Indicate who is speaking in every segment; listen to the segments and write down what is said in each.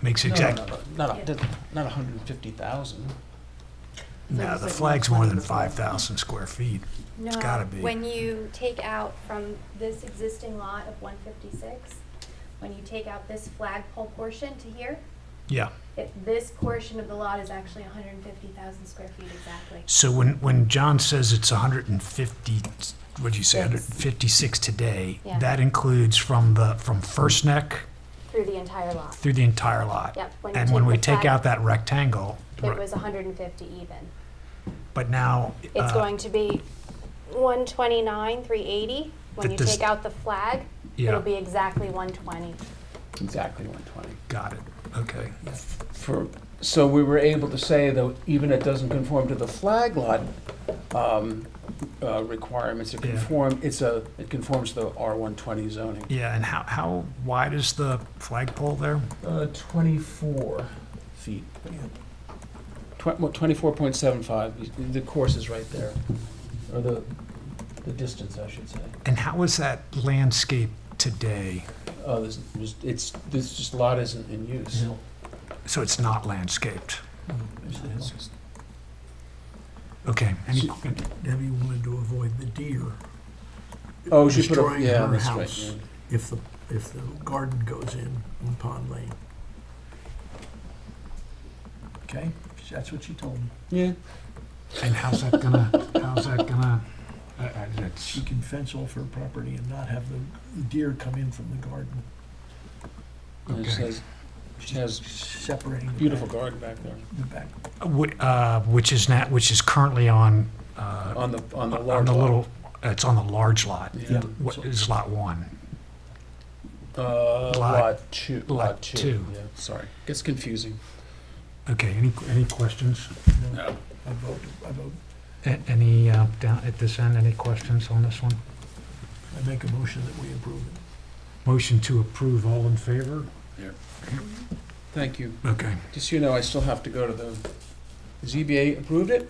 Speaker 1: Makes
Speaker 2: No, no,
Speaker 1: exact,
Speaker 2: no, no, Not, a- not a hundred and fifty thousand.
Speaker 1: no, the flag's more than 5,000 square feet.
Speaker 3: No.
Speaker 1: gotta be.
Speaker 3: When you take out from this existing lot of one fifty-six, when you take out this flagpole portion to here,
Speaker 1: Yeah.
Speaker 3: it, this portion of the lot is actually hundred and fifty thousand square feet exactly.
Speaker 1: So when, when John says it's 150, what'd you say,
Speaker 3: Six.
Speaker 1: 156 today,
Speaker 3: Yeah.
Speaker 1: that includes from the, from First Neck
Speaker 3: Through the entire lot.
Speaker 1: through the entire lot?
Speaker 3: Yep. you
Speaker 1: And when we
Speaker 3: the
Speaker 1: take
Speaker 3: flag-
Speaker 1: out that rectangle,
Speaker 3: It was hundred and fifty even.
Speaker 1: but now.
Speaker 3: It's
Speaker 1: uh,
Speaker 3: going to be one twenty-nine, three eighty. When
Speaker 1: That
Speaker 3: you
Speaker 1: does-
Speaker 3: take out the flag,
Speaker 1: Yeah.
Speaker 3: it'll be exactly one twenty.
Speaker 2: Exactly one twenty.
Speaker 1: Got it, okay.
Speaker 2: For, so we were able to say that even it doesn't conform to the flag lot, um, uh, requirements, it
Speaker 1: Yeah.
Speaker 2: conform, it's a, it conforms to the R one twenty zoning.
Speaker 1: Yeah, and how, how wide is the flagpole there?
Speaker 2: Uh, twenty-four feet. Twenty-four point seven five, the course is right there, or the, the distance, I should say.
Speaker 1: And how is that landscape today?
Speaker 2: Oh, this, was- it's, this just lot isn't in use.
Speaker 1: So it's not landscaped? Okay. any-
Speaker 4: So- Debbie wanted to avoid the deer.
Speaker 2: Oh, she put a,
Speaker 4: Destroying
Speaker 2: yeah,
Speaker 4: her
Speaker 2: that's right.
Speaker 4: house. If the, if the garden goes in on Pond Lane. Okay, that's what she told me.
Speaker 2: yeah. Yeah,
Speaker 1: And how's that gonna, how's that gonna, uh, uh, that's,
Speaker 4: She can fence off her property and not have the deer come in from the garden,
Speaker 2: and it
Speaker 1: Okay.
Speaker 2: says, she has
Speaker 4: separating the back.
Speaker 2: beautiful garden back there,
Speaker 4: The back.
Speaker 1: whi- uh, which is not, which is currently on, uh,
Speaker 2: on the, on the
Speaker 1: on
Speaker 2: large
Speaker 1: the
Speaker 2: lot.
Speaker 1: little, it's on the large lot.
Speaker 2: Yeah.
Speaker 1: What is lot one?
Speaker 2: Uh,
Speaker 1: Lot-
Speaker 2: lot two,
Speaker 1: lot
Speaker 2: lot two,
Speaker 1: two.
Speaker 2: yeah, sorry, gets confusing.
Speaker 1: Okay, any, any questions?
Speaker 4: No, I vote, I vote,
Speaker 1: A- Any, uh, down at this end, any questions on this one?
Speaker 4: I make a motion that we approve it.
Speaker 1: Motion to approve, all in favor?
Speaker 2: Thank you,
Speaker 1: Okay.
Speaker 2: just so you know, I still have to go to the, ZBA approved it,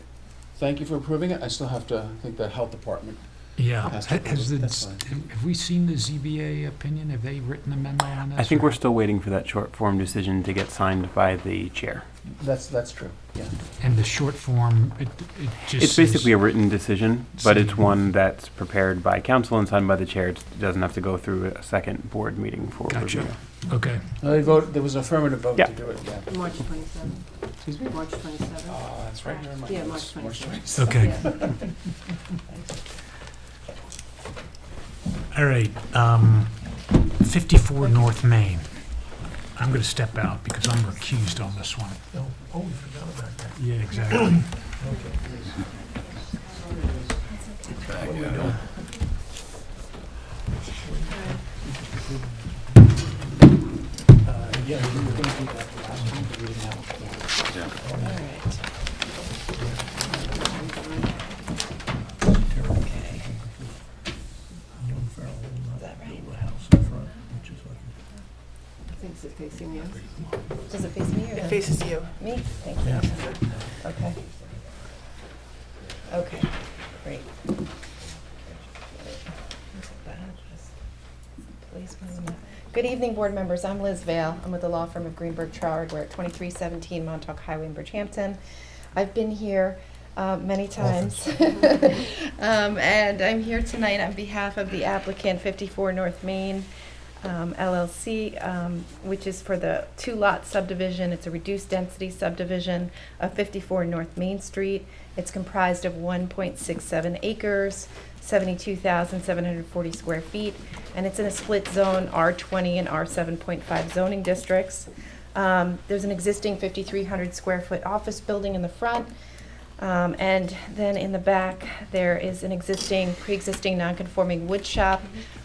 Speaker 2: thank you for approving it, I still have to, I think the health department
Speaker 1: Yeah, has
Speaker 2: Has to approve it,
Speaker 1: the,
Speaker 2: that's
Speaker 1: have we seen the ZBA opinion? Have they written a memo on this?
Speaker 5: I think
Speaker 1: or-
Speaker 5: we're still waiting for that short form decision to get signed by the chair.
Speaker 2: That's, that's true, yeah.
Speaker 1: And the short form, it, it just.
Speaker 5: It's basically
Speaker 1: says-
Speaker 5: a written decision, but it's
Speaker 1: Same.
Speaker 5: one that's prepared by council and signed by the chair. It doesn't have to go through a second board meeting for
Speaker 1: Gotcha.
Speaker 5: review.
Speaker 1: Okay,
Speaker 2: They voted, there was an affirmative vote to
Speaker 5: Yeah.
Speaker 2: do it, yeah.
Speaker 6: March 27th,
Speaker 2: Excuse me?
Speaker 6: March 27th.
Speaker 2: Ah, that's right, never mind.
Speaker 6: Yeah,
Speaker 2: It was
Speaker 6: March 26th.
Speaker 1: okay,
Speaker 6: Yeah.
Speaker 1: all right. um, 54 North Main. I'm going to step out because I'm recused on this one.
Speaker 4: No, oh, we forgot about that,
Speaker 1: Yeah, exactly.
Speaker 4: okay. Uh, yeah, we were gonna do that the last time, but we didn't have a quorum.
Speaker 6: All right.
Speaker 4: Okay. Young Farrell will not build a house in front, which is like.
Speaker 6: Thanks, it's facing you.
Speaker 7: Does it face me or?
Speaker 6: It faces you.
Speaker 7: Me? Thank you. Okay. Okay, great. Please, one minute. Good evening, board members. I'm Liz Vale. I'm with the law firm of Greenberg Traurig. We're at 2317 Montauk Highway in Bridgehampton. I've been here uh, many times. Um, And I'm here tonight on behalf of the applicant 54 North Main um, LLC, um, which is for the two-lot subdivision. It's a reduced-density subdivision of 54 North Main Street. It's comprised of 1.67 acres, 72,740 square feet, and it's in a split zone, R20 and R7.5 zoning districts. Um, There's an existing 5,300 square foot office building in the front, um, and then in the back, there is an existing, pre-existing non-conforming wood shop.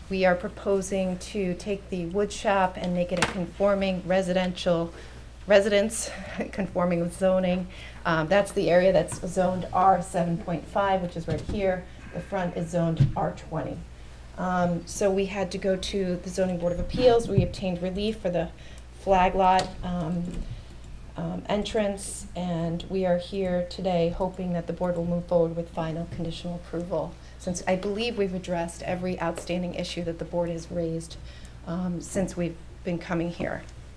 Speaker 7: We are proposing to take the wood shop and make it a conforming residential residence, conforming with zoning. Um, that's the area that's zoned R seven point five, which is right here. The front is zoned R twenty. Um, so we had to go to the zoning board of appeals. We obtained relief for the flag lot, um, um, entrance, and we are here today hoping that the board will move forward with final conditional approval, since I believe we've addressed every outstanding issue that the board has raised um, since we've been coming here.